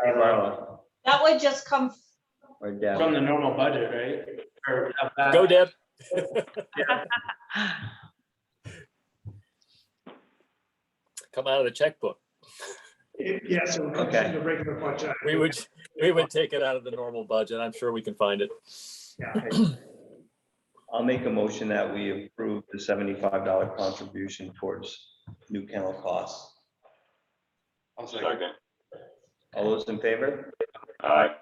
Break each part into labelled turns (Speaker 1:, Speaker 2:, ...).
Speaker 1: Or borrow
Speaker 2: That would just come,
Speaker 1: or deb.
Speaker 3: From the normal budget, right? Or up back.
Speaker 4: Uh,
Speaker 5: Go Deb. Come out of the checkbook.
Speaker 4: It- Yeah, so it comes
Speaker 1: Okay.
Speaker 4: in the regular budget.
Speaker 5: We would, we would take it out of the normal budget. I'm sure we can find it.
Speaker 1: I'll make a motion that we approve the seventy-five dollar contribution towards new kennel costs.
Speaker 3: I'll second.
Speaker 6: Second.
Speaker 1: All those in favor?
Speaker 6: Aye.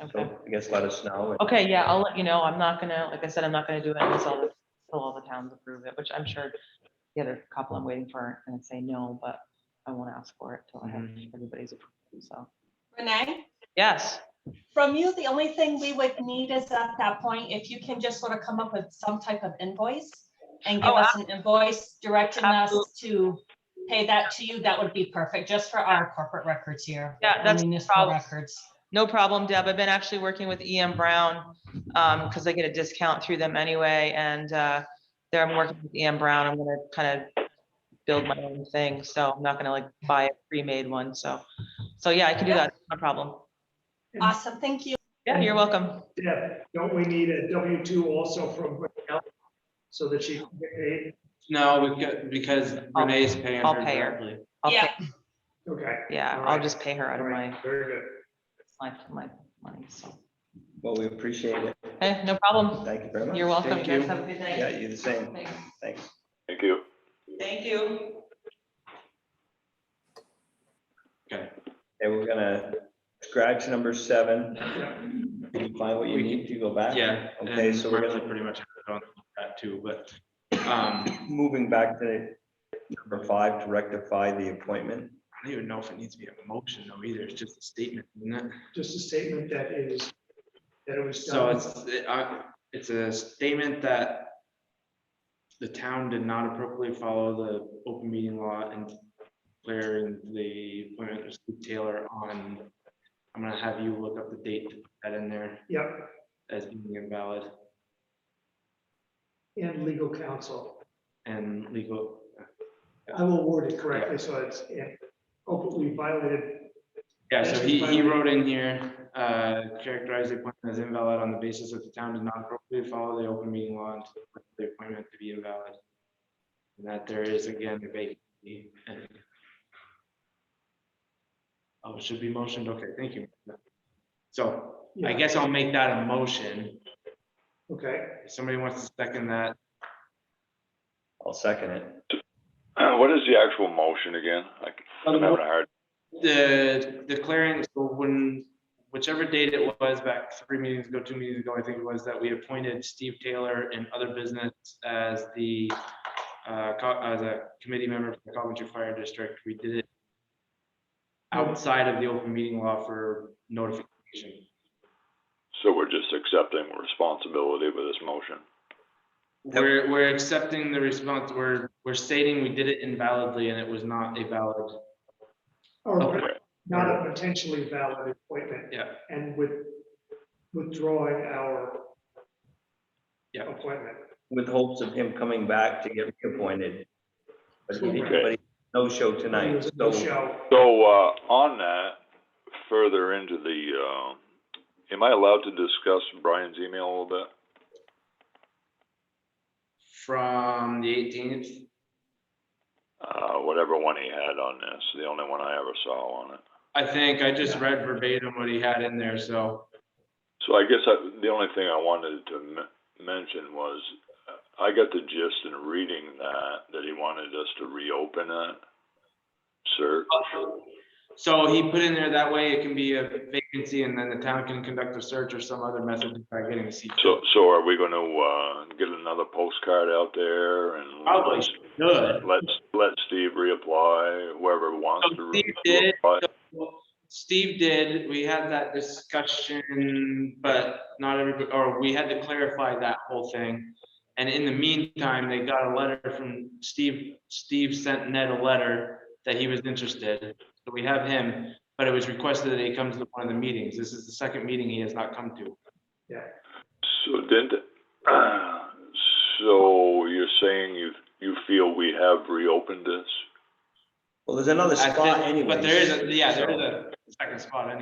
Speaker 7: Okay,
Speaker 1: So I guess let us know.
Speaker 7: Okay. yeah, I'll let you know. I'm not gonna, like I said, I'm not gonna do it until, the- till all the towns approve it, which I'm sure the other couple I'm waiting for and say no, but I won't ask for it till I have
Speaker 4: Mm-hmm.
Speaker 7: everybody's approval, so.
Speaker 2: Renee,
Speaker 7: Yes,
Speaker 2: from you, the only thing we would need is at that point, if you can just sort of come up with some type of invoice and give
Speaker 7: Oh,
Speaker 2: us an invoice directing us
Speaker 7: Absolutely.
Speaker 2: to pay that to you, that would be perfect, just for our corporate records here.
Speaker 7: Yeah,
Speaker 2: our
Speaker 7: that's no
Speaker 2: Municipal
Speaker 7: problem.
Speaker 2: records.
Speaker 7: no problem, Deb. I've been actually working with EM Brown, um, because I get a discount through them anyway, and, uh, there I'm working with EM Brown. I'm gonna kind of build my own thing, so I'm not gonna like buy a pre-made one, so. So, yeah, I can do that, no problem.
Speaker 2: Awesome, thank you.
Speaker 7: Yeah, you're welcome.
Speaker 4: Deb, don't we need a W two also from Raquel so that she can get paid?
Speaker 3: No, we got, because Renee's paying
Speaker 7: I'll
Speaker 3: her
Speaker 7: pay her.
Speaker 3: directly.
Speaker 7: I'll
Speaker 2: Yeah.
Speaker 7: pay,
Speaker 4: Okay.
Speaker 7: yeah,
Speaker 4: All
Speaker 7: I'll
Speaker 4: right.
Speaker 7: just pay her out of
Speaker 4: all
Speaker 7: my,
Speaker 4: right, Very good.
Speaker 7: my, my money, so.
Speaker 1: Well, we appreciate it.
Speaker 7: Hey, no problem.
Speaker 1: Thank you very much.
Speaker 7: You're welcome.
Speaker 3: Thank
Speaker 7: Jess.
Speaker 3: you.
Speaker 7: Have a good
Speaker 1: Yeah,
Speaker 7: night.
Speaker 1: you the same.
Speaker 7: Thanks.
Speaker 1: Thanks.
Speaker 6: Thank you.
Speaker 7: Thank you.
Speaker 1: Okay, we're gonna scratch number seven.
Speaker 4: Yeah.
Speaker 1: Did you find what you need to go back?
Speaker 3: Yeah.
Speaker 1: Okay,
Speaker 3: and
Speaker 1: so we're
Speaker 3: Marley
Speaker 1: gonna,
Speaker 3: Pretty much on that too, but, um, I
Speaker 1: moving back to number five, to rectify the appointment.
Speaker 3: don't even know if it needs to be a motion though either. It's just a statement, isn't it?
Speaker 4: Just a statement that it is, that it was
Speaker 3: So
Speaker 4: done.
Speaker 3: it's, it, uh, it's a statement that the town did not appropriately follow the open meeting law and declaring the appointment of Steve Taylor on, I'm gonna have you look up the date to put that in there
Speaker 4: Yep,
Speaker 3: as being invalid
Speaker 4: and legal counsel.
Speaker 3: and legal.
Speaker 4: I will word it correctly, so it's, and hopefully violated.
Speaker 3: Yeah, so he, he wrote in here, uh, characterize the appointment as invalid on the basis that the town did not appropriately follow the open meeting law and declared the appointment to be invalid. And that there is again a vacancy. Oh, it should be motioned, okay, thank you. So I
Speaker 4: Yeah,
Speaker 3: guess I'll make that a motion.
Speaker 4: Okay,
Speaker 3: If somebody wants to second that,
Speaker 1: I'll second it.
Speaker 6: Uh, What is the actual motion again? I c- I'm having a hard,
Speaker 3: the declaring, so when, whichever date it was back three meetings ago, two meetings ago, I think it was that we appointed Steve Taylor and other business as the, uh, co- as a committee member for the Coventry Fire District. We did it outside of the open meeting law for notification.
Speaker 6: so we're just accepting responsibility with this motion.
Speaker 3: We're, we're accepting the response, we're, we're stating we did it invalidly and it was not a valid,
Speaker 4: or
Speaker 3: Okay.
Speaker 4: not a potentially valid appointment
Speaker 3: yeah,
Speaker 4: and with withdrawing our
Speaker 3: yeah.
Speaker 4: appointment.
Speaker 1: with hopes of him coming back to get reappointed. But he,
Speaker 4: Okay.
Speaker 1: but he, no show
Speaker 4: There
Speaker 1: tonight,
Speaker 4: was no
Speaker 1: so
Speaker 4: show.
Speaker 6: So, uh, on that, further into the, uh, am I allowed to discuss Brian's email a little bit?
Speaker 3: From the eighteenth,
Speaker 6: Uh, whatever one he had on this, the only one I ever saw on it.
Speaker 3: I think I just read verbatim what he had in there, so.
Speaker 6: So I guess I, the only thing I wanted to m- mention was, uh, I got the gist in reading that, that he wanted us to reopen it. Sir,
Speaker 3: So he put in there that way it can be a vacancy and then the town can conduct a search or some other method by getting a seat.
Speaker 6: so, so are we gonna, uh, get another postcard out there and?
Speaker 3: Probably should.
Speaker 6: Let's, let Steve reapply, whoever wants to.
Speaker 3: So
Speaker 6: re-
Speaker 3: Steve did,
Speaker 6: reapply.
Speaker 3: Steve did, we had that discussion, but not everybody, or we had to clarify that whole thing. And in the meantime, they got a letter from Steve, Steve sent Ned a letter that he was interested. So we have him, but it was requested that he comes to one of the meetings. This is the second meeting he has not come to.
Speaker 6: So didn't, so you're saying you, you feel we have reopened this?
Speaker 1: well, there's another
Speaker 3: I
Speaker 1: spot
Speaker 3: think-
Speaker 1: anyway.
Speaker 3: But there is, a yeah, there is a second spot anyway.